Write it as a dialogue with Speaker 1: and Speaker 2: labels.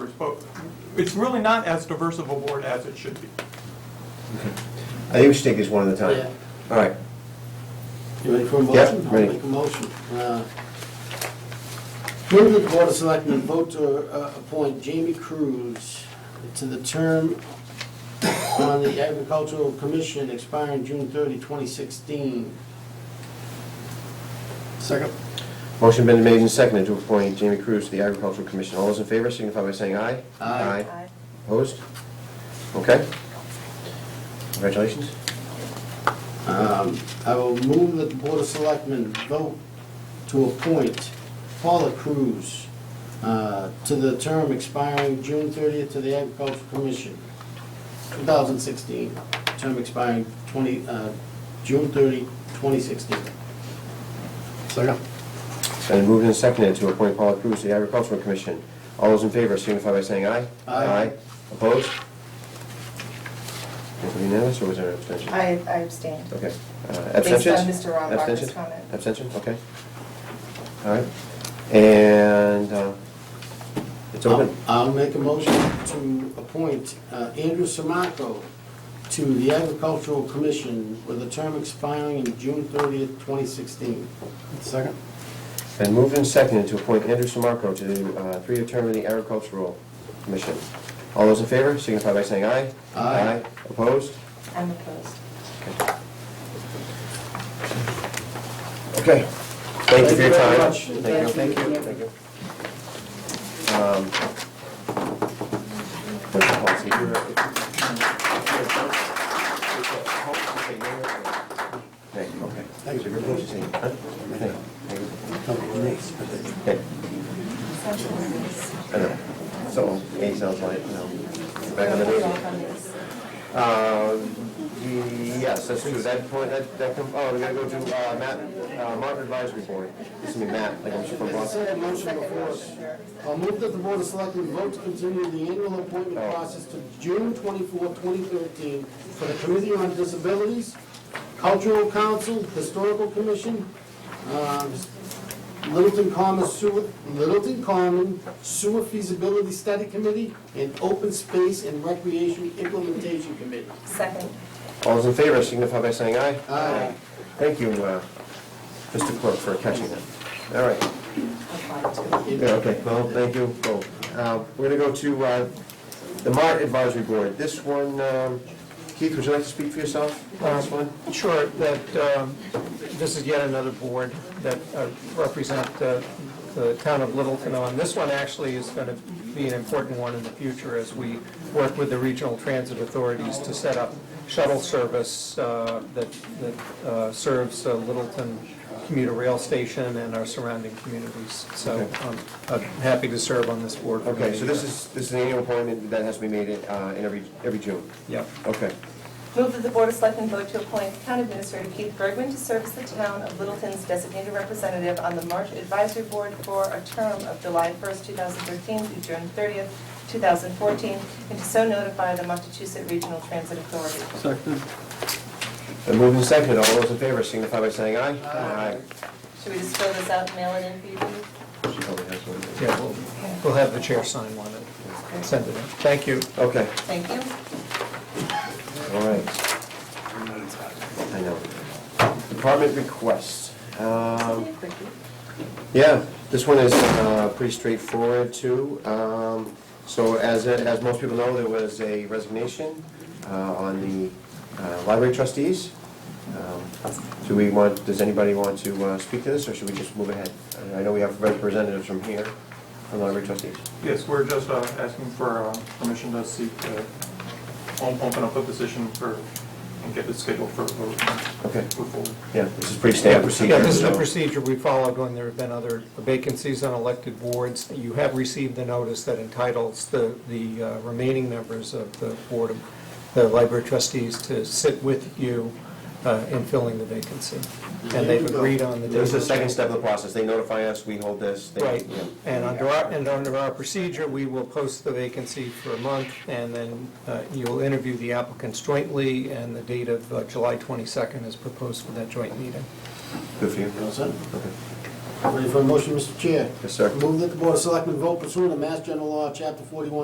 Speaker 1: it's really not as diverse of a board as it should be.
Speaker 2: I think we should take this one at a
Speaker 3: Yeah.
Speaker 2: time. All right,
Speaker 3: You ready for a
Speaker 2: Yep,
Speaker 3: motion?
Speaker 2: ready.
Speaker 3: I'll make a motion. Uh, Move that the Board of Selectmen vote to uh, appoint Jamie Cruz to the term on the Agricultural Commission expiring June 30, 2016. Second.
Speaker 2: motion been made and seconded to appoint Jamie Cruz to the Agricultural Commission. All those in favor signify by saying aye.
Speaker 3: Aye.
Speaker 4: Aye.
Speaker 2: Opposed? Okay. Congratulations.
Speaker 3: Um, I will move that the Board of Selectmen vote to appoint Paula Cruz uh, to the term expiring June 30th to the Agricultural Commission, 2016, term expiring 20, uh, June 30, 2016. Second.
Speaker 2: It's been moved and seconded to appoint Paula Cruz to the Agricultural Commission. All those in favor signify by saying aye.
Speaker 3: Aye.
Speaker 2: Opposed? Was it unanimous or was there an abstention?
Speaker 4: I I abstained.
Speaker 2: Okay. Uh,
Speaker 4: Based on
Speaker 2: Abstentions?
Speaker 4: Mr. Rombacher's
Speaker 2: Abstentions?
Speaker 4: comment.
Speaker 2: Abstention, okay. All right. And uh, it's open.
Speaker 3: I'll make a motion to appoint uh, Andrew Samaco to the Agricultural Commission with a term expiring in June 30th, 2016. Second.
Speaker 2: Been moved and seconded to appoint Andrew Samarco to the uh, three-year term of the Agricultural Commission. All those in favor signify by saying aye.
Speaker 3: Aye.
Speaker 2: Opposed?
Speaker 4: I'm opposed.
Speaker 2: Okay. Thank you for your
Speaker 3: very
Speaker 2: time.
Speaker 3: much.
Speaker 2: Thank you. Thank you. Um, what's the policy here? Thank you, okay.
Speaker 3: Thank you.
Speaker 2: You're supposed to say, huh? Thank you. Thank you. Okay. I know. So, A sounds like, no. Back on the
Speaker 4: We're off
Speaker 2: meeting.
Speaker 4: on these.
Speaker 2: Uh, Yes, that's true, that point, that, that, com- oh, we gotta go to uh, Matt, uh, Martin Advisory Board. This is me, Matt, like I'm super
Speaker 3: As I
Speaker 2: boss.
Speaker 3: said, I motion before us. I'll move that the Board of Selectmen vote to continue the annual appointment process to June 24, 2013 for the Committee on Disabilities, Cultural Council, Historical Commission, um, Littleton Common Sewer, Littleton Common Sewer Feasibility Study Committee, and Open Space and Recreation Implementation Committee.
Speaker 4: Second.
Speaker 2: All those in favor signify by saying aye.
Speaker 3: Aye.
Speaker 2: Thank you, uh, Mr. Clerk, for catching that. All right.
Speaker 4: I'll find two.
Speaker 2: Yeah, okay, well, thank you, Go. Uh, We're gonna go to uh, the Mart Advisory Board. This one, um, Keith, would you like to speak for yourself on this one?
Speaker 5: Sure, that, um, this is yet another board that uh, represent uh, the town of Littleton on. This one actually is going to be an important one in the future as we work with the regional transit authorities to set up shuttle service uh, that that uh, serves uh, Littleton commuter rail station and our surrounding communities. So um, I'm happy to serve on this board. for
Speaker 2: Okay, so
Speaker 5: many
Speaker 2: this
Speaker 5: years.
Speaker 2: is, this is an annual appointment that has to be made uh, in every, every June.
Speaker 5: Yep.
Speaker 2: Okay.
Speaker 4: Move that the Board of Selectmen vote to appoint Town Administrator Keith Bergman to serve as the town of Littleton's designated representative on the March Advisory Board for a term of July 1st, 2013 through June 30th, 2014, and to so notify the Montechusett Regional Transit Authority.
Speaker 2: And moving and seconded, all those in favor signify by saying aye. Aye.
Speaker 4: Should we just fill this out and mail it in for you? Dee?
Speaker 2: She probably has one.
Speaker 5: Yeah, we'll- we'll have the chair sign one and send it in. Thank you.
Speaker 2: Okay,
Speaker 4: Thank you.
Speaker 2: all right. I know. Department requests. Um, Yeah, this one is uh, pretty straightforward, too. Um, So as, as most people know, there was a resignation uh, on the uh, library trustees. Um, Do we want, does anybody want to uh, speak to this, or should we just move ahead? I- I know we have representatives from here, from library trustees.
Speaker 1: Yes, we're just uh, asking for uh, permission to seek, uh, o- open up a position for, and get it scheduled for a vote. and
Speaker 2: Okay.
Speaker 1: Move forward.
Speaker 2: Yeah, this is pretty standard procedure.
Speaker 5: Yeah, this is the
Speaker 2: so-
Speaker 5: procedure we followed when there have been other vacancies on elected boards. You have received the notice that entitles the, the uh, remaining members of the Board of, the library trustees to sit with you uh, in filling the vacancy. And they've agreed on the.
Speaker 2: This is the second step of the process. They notify us, we hold this. they-
Speaker 5: Right,
Speaker 2: yeah.
Speaker 5: and under our, and under our procedure, we will post the vacancy for a month, and then uh, you'll interview the applicants jointly, and the date of uh, July 22nd is proposed for that joint meeting.
Speaker 2: Good for you.
Speaker 3: You all set?
Speaker 2: Okay.
Speaker 3: Ready for a motion, Mr. Chair?
Speaker 2: Yes, sir.
Speaker 3: Move that the Board of Selectmen vote pursuant to Mass General Law, Chapter 41,